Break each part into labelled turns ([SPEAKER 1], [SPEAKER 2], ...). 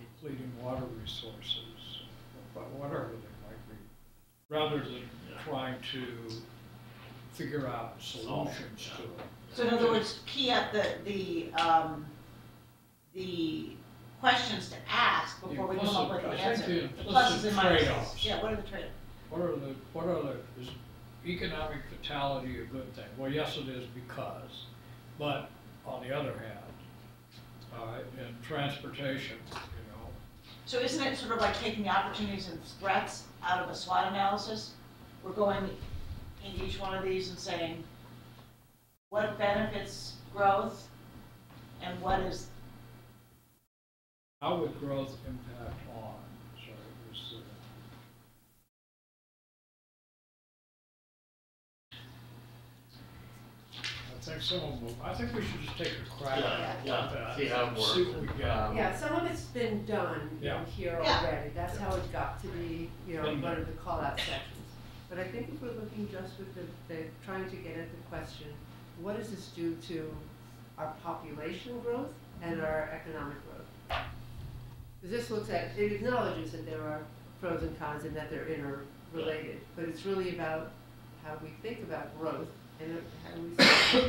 [SPEAKER 1] depleting water resources, but whatever they might be, rather than trying to figure out solutions to it.
[SPEAKER 2] So in other words, key up the, the, um, the questions to ask before we come up with
[SPEAKER 1] Implicit-
[SPEAKER 2] the
[SPEAKER 1] I think
[SPEAKER 2] answer.
[SPEAKER 1] the
[SPEAKER 2] The pluses
[SPEAKER 1] implicit
[SPEAKER 2] and minuses,
[SPEAKER 1] trade-offs.
[SPEAKER 2] yeah, what are the trade-offs?
[SPEAKER 1] What are the, what are the, is economic vitality a good thing? Well, yes, it is because, but on the other hand, uh, in transportation, you know,
[SPEAKER 2] So isn't it sort of like taking the opportunities and threats out of a SWOT analysis? We're going into each one of these and saying, what benefits growth and what is,
[SPEAKER 1] How would growth impact on, sorry, was the. I think someone will, I think we should just take a crack
[SPEAKER 3] Yeah,
[SPEAKER 1] at
[SPEAKER 3] yeah,
[SPEAKER 1] that.
[SPEAKER 3] see how it
[SPEAKER 1] and
[SPEAKER 3] works.
[SPEAKER 1] See what we get.
[SPEAKER 3] Um,
[SPEAKER 4] Yeah, some of it's been done you know,
[SPEAKER 1] Yeah.
[SPEAKER 4] here
[SPEAKER 2] Yeah.
[SPEAKER 4] already, that's how it got to be, you know,
[SPEAKER 1] Been
[SPEAKER 4] one
[SPEAKER 1] done.
[SPEAKER 4] of the call-out sections. But I think if we're looking just with the, the, trying to get at the question, what does this do to our population growth and our economic growth? 'Cause This looks at, it acknowledges that there are pros and cons and that they're interrelated, but it's really about how we think about growth and how we.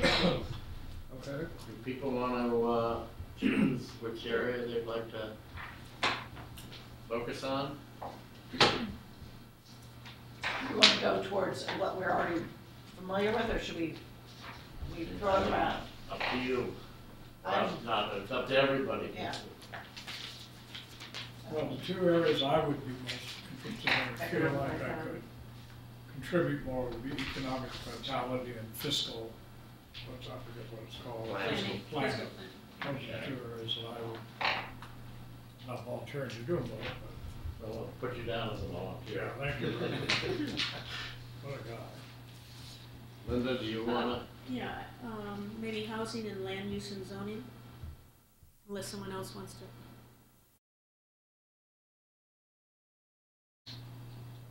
[SPEAKER 1] Okay,
[SPEAKER 3] If people want to uh, choose which area they'd like to focus on,
[SPEAKER 2] we want to go towards what we're already familiar with, or should we, we throw it around?
[SPEAKER 3] up to you.
[SPEAKER 2] I'm-
[SPEAKER 3] It's not, it's up to everybody.
[SPEAKER 2] Yeah.
[SPEAKER 1] well, the two areas I would be most interested in, I feel like I could contribute more would be economic vitality and fiscal, what's, I forget what it's called,
[SPEAKER 3] Planning.
[SPEAKER 1] fiscal planning. Those are two areas that I would, not volunteering to do them, but
[SPEAKER 3] Well, I'll put you down as a volunteer.
[SPEAKER 1] Yeah, thank What a guy.
[SPEAKER 3] Linda, do you want
[SPEAKER 5] Yeah, um, maybe housing and land use and zoning, unless someone else wants to.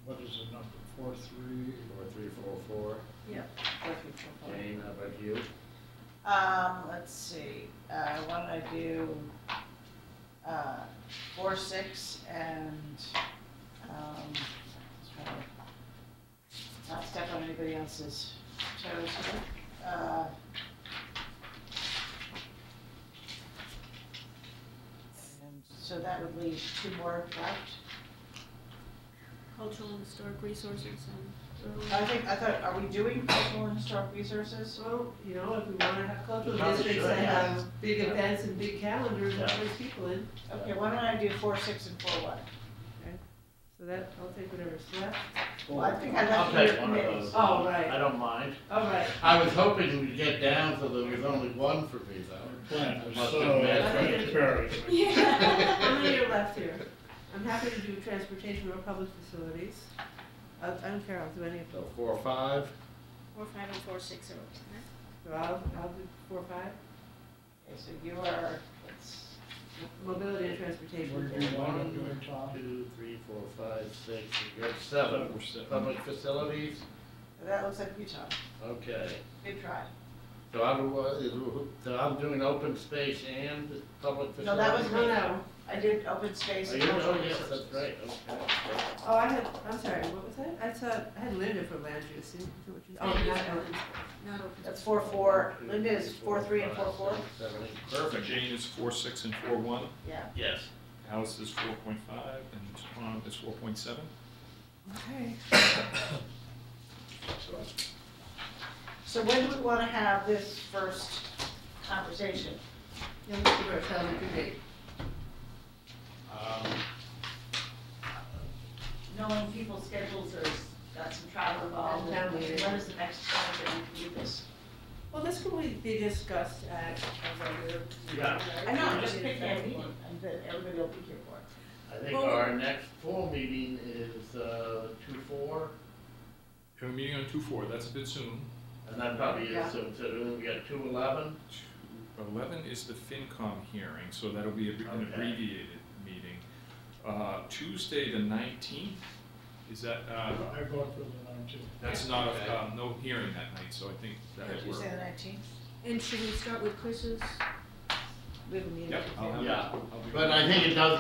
[SPEAKER 1] What is the number, four, three?
[SPEAKER 3] to? Four, three, four, four. Jane, how about you?
[SPEAKER 2] Um, let's see, uh, why don't I do, uh, four, six, and, um, let's try to not step on anybody else's toes here. Uh, And so that would leave two more left.
[SPEAKER 5] Cultural and historic resources and rural.
[SPEAKER 2] I think, I thought, are we doing cultural and historic resources?
[SPEAKER 4] Well, you know, if we wanna have cultural
[SPEAKER 3] We probably
[SPEAKER 4] districts
[SPEAKER 3] should,
[SPEAKER 4] that
[SPEAKER 3] yeah.
[SPEAKER 4] have big
[SPEAKER 3] Yeah.
[SPEAKER 4] events and big calendars and
[SPEAKER 3] Yeah.
[SPEAKER 4] brings people in,
[SPEAKER 2] Okay, why don't I do four, six, and four, one?
[SPEAKER 4] so that, I'll take whatever's left.
[SPEAKER 2] Well, I think I
[SPEAKER 3] I'll
[SPEAKER 2] left you
[SPEAKER 3] take one of those.
[SPEAKER 4] Oh, right.
[SPEAKER 3] I don't mind.
[SPEAKER 4] All right,
[SPEAKER 3] I was hoping we'd get down so there was only one for me though.
[SPEAKER 1] Plan
[SPEAKER 3] I
[SPEAKER 1] is
[SPEAKER 3] must
[SPEAKER 1] so
[SPEAKER 3] admit.
[SPEAKER 1] transparent.
[SPEAKER 4] how many are left here? I'm happy to do transportation or public facilities. I, I don't care, I'll do any of them.
[SPEAKER 3] So four, five,
[SPEAKER 5] Four, five, and four, six are okay.
[SPEAKER 4] So I'll, I'll do four, or five,
[SPEAKER 2] Okay, so you are, let's,
[SPEAKER 4] mobility and
[SPEAKER 1] Where
[SPEAKER 4] transportation.
[SPEAKER 1] do you want to do it, Tom?
[SPEAKER 3] two, three, four, five, six, you got seven. Public facilities,
[SPEAKER 2] that looks like Utah.
[SPEAKER 3] okay.
[SPEAKER 2] Good try.
[SPEAKER 3] So I'm, uh, so I'm doing open space and public facilities?
[SPEAKER 2] No, that was
[SPEAKER 4] No, no,
[SPEAKER 2] I did open space.
[SPEAKER 3] Oh,
[SPEAKER 2] and
[SPEAKER 3] you know,
[SPEAKER 2] cultural
[SPEAKER 3] yes,
[SPEAKER 2] resources.
[SPEAKER 3] that's right, okay.
[SPEAKER 4] oh, I had, I'm sorry, what was that? I thought, I had Linda for land use, Is that what you- oh, not Ellen.
[SPEAKER 5] Not open.
[SPEAKER 2] That's four, four. Linda is four, three, and four, four.
[SPEAKER 3] Seven, eight,
[SPEAKER 6] But
[SPEAKER 3] perfect.
[SPEAKER 6] Jane is four, six, and four, one,
[SPEAKER 2] Yeah.
[SPEAKER 3] Yes.
[SPEAKER 6] Alice is four point five, and Tom is four point seven.
[SPEAKER 4] Okay.
[SPEAKER 2] So when do we want to have this first conversation?
[SPEAKER 4] Yeah, let's give ourselves a good date.
[SPEAKER 3] Um,
[SPEAKER 2] Knowing people's schedules, there's, got some travel involved.
[SPEAKER 4] And family.
[SPEAKER 2] When is the next time that we can do this?
[SPEAKER 4] Well, this can we- be discussed at a regular.
[SPEAKER 3] Yeah.
[SPEAKER 2] I know, I'm just picking a meeting, and that everybody will be here for it.
[SPEAKER 3] I think our next full meeting is, uh, two, four,
[SPEAKER 6] Have a meeting on two, four, that's a bit soon.
[SPEAKER 3] and that probably
[SPEAKER 4] Yeah.
[SPEAKER 3] is, so, so then we got two, eleven,
[SPEAKER 6] Eleven is the FinCom hearing, so that'll be a- an
[SPEAKER 3] Okay.
[SPEAKER 6] abbreviated meeting. Uh, Tuesday, the nineteenth, is that,
[SPEAKER 1] I
[SPEAKER 6] uh,
[SPEAKER 1] vote for the nineteen.
[SPEAKER 6] that's not,
[SPEAKER 3] Okay.
[SPEAKER 6] uh, no hearing that night, so I think that'll
[SPEAKER 2] Did you say
[SPEAKER 6] work.
[SPEAKER 2] the nineteenth?
[SPEAKER 5] And should we start with Chris's? We have a meeting.
[SPEAKER 6] Yep, I'll have it.
[SPEAKER 3] Yeah,
[SPEAKER 6] I'll be-
[SPEAKER 3] but I think it does